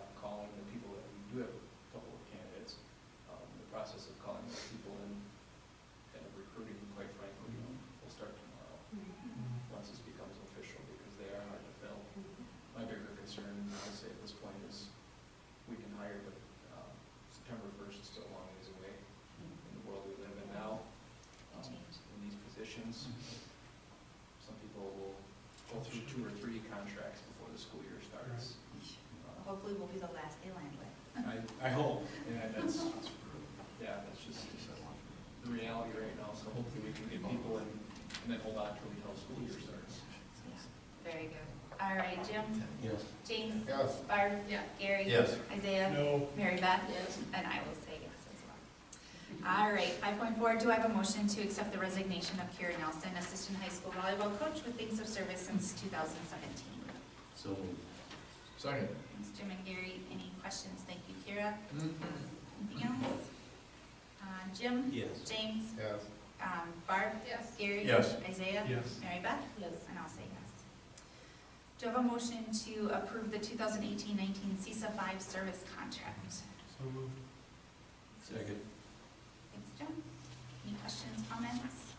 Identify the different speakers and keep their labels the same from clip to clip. Speaker 1: um, um, um, Um,
Speaker 2: be the last they land with.
Speaker 1: I, I hope, yeah, that's, yeah, that's just the reality right now, so hopefully we can get people in and then hold on till the whole school year starts.
Speaker 2: Very good. All right, Jim?
Speaker 3: Yes.
Speaker 2: James?
Speaker 4: Yes.
Speaker 2: Barb? Gary?
Speaker 4: Yes.
Speaker 2: Isaiah?
Speaker 1: No.
Speaker 2: Mary Beth? Yes. And I will say yes as well. All right, five point four, do I have a motion to accept the resignation of Kira Nelson, Assistant High School Volleyball Coach with Things of Service since two thousand seventeen?
Speaker 3: So moved.
Speaker 4: Second.
Speaker 2: Thanks, Jim and Gary. Any questions? Thank you, Kira. Anything else? Uh, Jim?
Speaker 3: Yes.
Speaker 2: James?
Speaker 4: Yes.
Speaker 2: Um, Barb? Yes. Gary?
Speaker 4: Yes.
Speaker 2: Isaiah?
Speaker 1: Yes.
Speaker 2: Mary Beth? Yes. And I'll say yes. Do I have a motion to approve the 2018-19 CISA 5 service contract?
Speaker 1: So moved.
Speaker 3: Second.
Speaker 2: Thanks, Jim. Any questions, comments?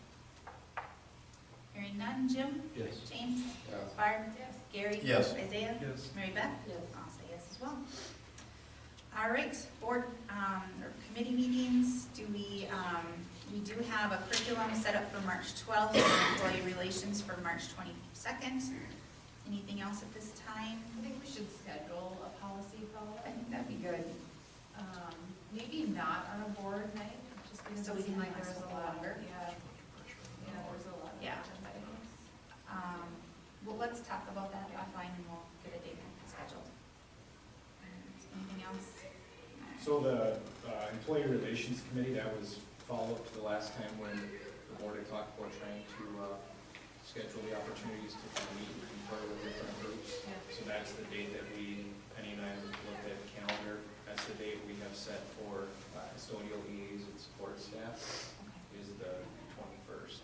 Speaker 2: Hearing none. Jim?
Speaker 3: Yes.
Speaker 2: James?
Speaker 4: Yes.
Speaker 2: Barb? Yes. Gary?
Speaker 4: Yes.
Speaker 2: Isaiah?
Speaker 1: Yes.
Speaker 2: Mary Beth? Yes. I'll say yes as well. All right, board, um, or committee meetings, do we, um, we do have a curriculum set up for March twelfth, employee relations for March twenty-second. Anything else at this time?
Speaker 5: I think we should schedule a policy
Speaker 2: I
Speaker 5: follow-up,
Speaker 2: think that'd be good.
Speaker 5: um, maybe not on a board night, just because
Speaker 2: So we
Speaker 5: it
Speaker 2: can
Speaker 5: seemed like
Speaker 2: have
Speaker 5: there was
Speaker 2: some
Speaker 5: a lot.
Speaker 2: longer.
Speaker 5: Yeah, yeah, there was a lot. of
Speaker 2: Yeah.
Speaker 5: agenda items.
Speaker 2: Um, well, let's talk about that offline and we'll get a date scheduled. And Anything else?
Speaker 1: So the uh, Employee Relations Committee, that was follow-up to the last time when the board had talked about trying to uh, schedule the opportunities to kind of meet and confer with different groups.
Speaker 5: Yeah.
Speaker 1: So that's the date that we, Penny and I looked at the calendar, that's the date we have set for uh, custodial EAs and support staff,
Speaker 2: Okay.
Speaker 1: is the twenty-first.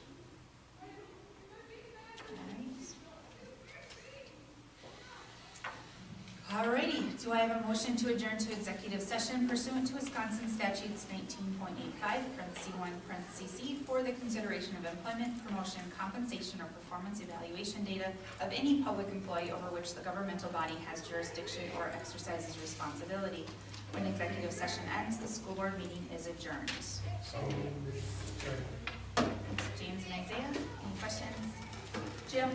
Speaker 2: Alrighty, do I have a motion to adjourn to executive session pursuant to Wisconsin statutes nineteen point eight five, parentheses one, parentheses C, for the consideration of employment, promotion, compensation, or performance evaluation data of any public employee over which the governmental body has jurisdiction or exercises responsibility. When executive session ends, the school board meeting is adjourned. James and Isaiah, any questions? Jim?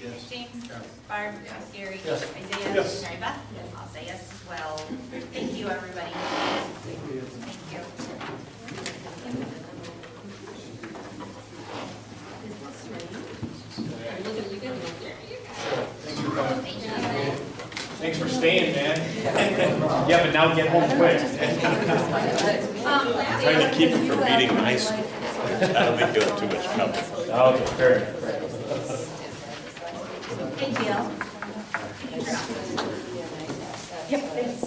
Speaker 3: Yes.
Speaker 2: James? Barb? Gary?
Speaker 3: Yes.
Speaker 2: Isaiah?
Speaker 1: Yes.
Speaker 2: Mary Beth? I'll say yes as well. Thank you, everybody. Thank you.
Speaker 1: Thanks for staying, man. Yeah, but now get home quick.
Speaker 2: Um,
Speaker 6: Trying to keep him from beating high school. That'll be doing too much trouble.
Speaker 1: Okay, fair enough.
Speaker 2: Hey, Jill.
Speaker 7: Yep.